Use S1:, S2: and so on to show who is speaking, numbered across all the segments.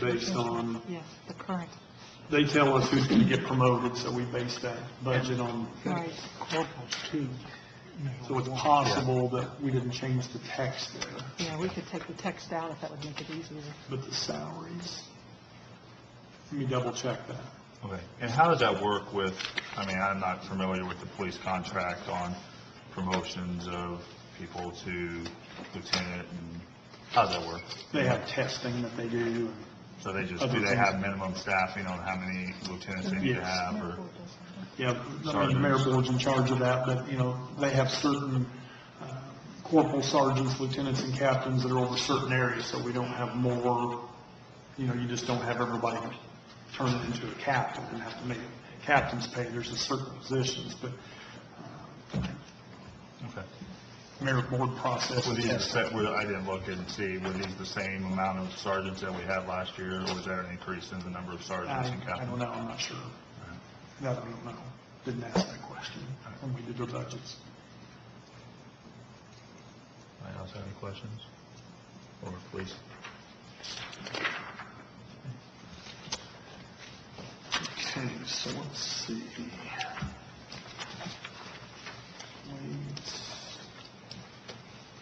S1: based on,
S2: Yes, the current,
S1: they tell us who's going to get promoted, so we base that budget on.
S2: right.
S1: Corporals too. So it's possible that we didn't change the text there,
S2: Yeah, we could take the text out if that would make it easier.
S1: but the salaries, let me double check that.
S3: Okay, and how does that work with, I mean, I'm not familiar with the police contract on promotions of people to lieutenant, and how does that work?
S1: They have testing that they do.
S3: So they just,
S1: Other
S3: do they
S1: things.
S3: have minimum staffing on how many lieutenants they need to
S1: Yes.
S3: have, or?
S1: Yeah, I mean, the mayor board's in charge of that, but, you know, they have certain uh, corporal sergeants, lieutenants, and captains that are over certain areas, so we don't have more, you know, you just don't have everybody turn into a captain and have to make captain's pay. There's a certain positions, but
S3: Okay.
S1: mayor board process.
S3: Were these, the set- were- I didn't look and see, were these the same amount of sergeants that we had last year, or was there an increase in the number of
S1: I
S3: sergeants and
S1: I don't
S3: captains?
S1: know, I'm not sure. That I don't know. Didn't ask that question when we did our budgets.
S3: Anyone else have any questions? Or please?
S1: Okay, so let's see. Waves.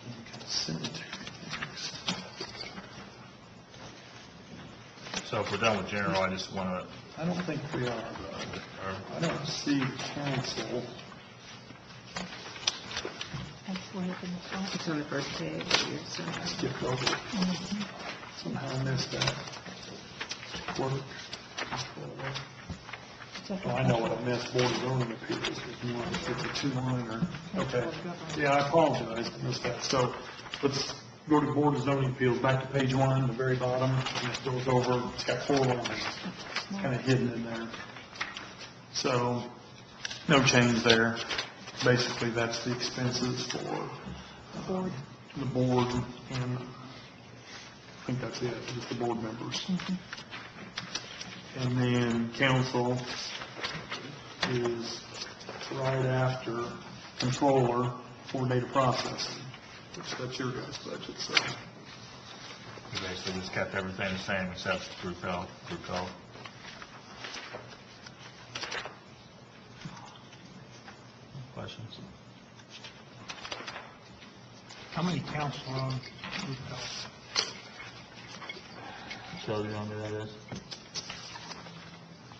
S1: And Consent.
S3: So if we're done with general, I just want
S1: I don't think we are, though.
S3: to,
S1: I don't see council.
S2: That's way up in the front.
S4: It's on the first page. it's, uh,
S1: Skipped over. it. Somehow I missed that. Work.
S2: It's up
S1: Oh, I know what I missed, board of zoning appeals, if you want, if it's too minor. Okay. Yeah, I apologize, I missed that. So let's go to board of zoning appeals, back to page one, the very bottom, and it goes over, it's got four lines, kind of hidden in there. So, no change there. Basically, that's the expenses for
S2: the board.
S1: the board, and I think that's it, just the board members. And then council is right after controller for data processing, which that's your guys' budget, so.
S3: we basically just kept everything the same except group health, group health. Questions?
S1: How many council on?
S3: Joe, do you know who that is?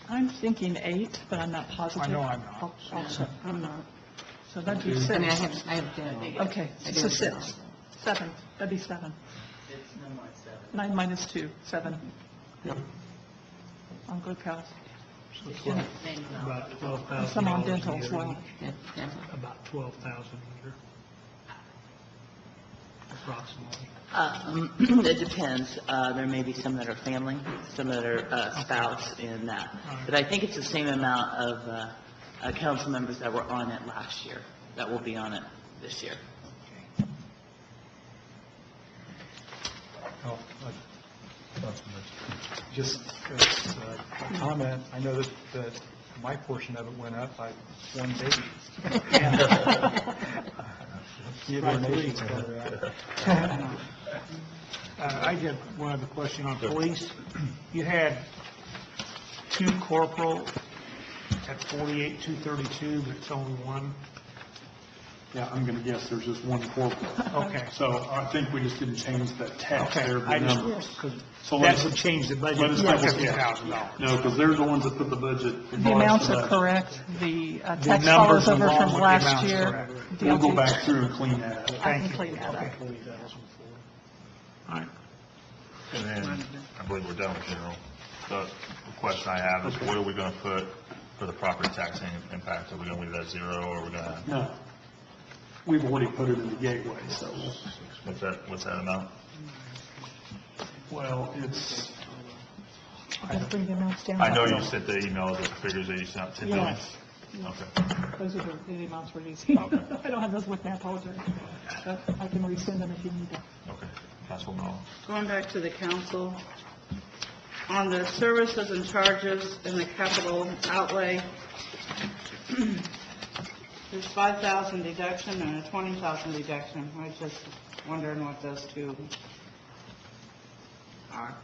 S2: I'm thinking eight, but I'm not positive. Oh,
S1: I know I'm not.
S2: I'll- I'll check.
S4: I'm not,
S2: So that'd be
S4: I mean, I
S2: six.
S4: have, I have done.
S2: Okay,
S4: I
S2: so
S4: do.
S2: six. Seven, that'd be seven. Nine minus two, seven
S1: Yep.
S2: on group health.
S4: Maybe not.
S5: About twelve
S2: And
S5: thousand
S2: some on
S5: dollars a
S2: dental as
S5: year.
S2: well.
S4: That- that's-
S5: About twelve thousand a year. Approximately.
S6: Um, It depends. Uh, There may be some that are family, some that are uh, spouse in that. But I think it's the same amount of uh, uh, council members that were on it last year, that will be on it this year.
S7: Oh, uh, Just as a comment, I know that, that my portion of it went up by one baby. You have donations for that.
S5: Uh, I just one other question on police. You had two corporal at forty-eight, two thirty-two, but it's only one.
S1: Yeah, I'm gonna guess there's just one corporate.
S5: Okay.
S1: So I think we just didn't change that text
S5: Okay,
S1: there. the
S5: I
S1: numbers.
S5: just, 'cause
S1: So
S5: that
S1: let's-
S5: would change the budget
S1: Let
S5: by
S1: us double
S5: fifty
S1: check.
S5: thousand dollars.
S1: No, because they're the ones that put the budget.
S2: The amounts are correct, the uh,
S5: The
S2: text
S5: numbers
S2: follows over
S5: along
S2: from
S5: with the
S2: last
S5: amounts
S2: year.
S5: correct.
S1: We'll go
S2: DLG.
S1: back through and clean that up.
S2: I can
S5: Thank you.
S2: clean that up.
S5: Forty thousand four.
S3: And then, I believe we're done with general. The the question I have is, what are we going to put for the property taxing impact? Are we going to leave that zero, or are we going to,
S1: No. We've already put it in the gateway, so,
S3: what's that, what's that amount?
S1: well, it's,
S2: Let's bring the amounts down.
S3: I know you sent the email, the figures that you sent, 10 million?
S2: Yes.
S3: Okay.
S2: Those are the the amounts we're using.
S3: Okay.
S2: I don't have those with me, I apologize. But I can resend them if you need them.
S3: Okay, Councilman Oliver.
S8: Going back to the council, on the services and charges and the capital outlay, there's 5,000 deduction and a 20,000 deduction. I was just wondering what those two are.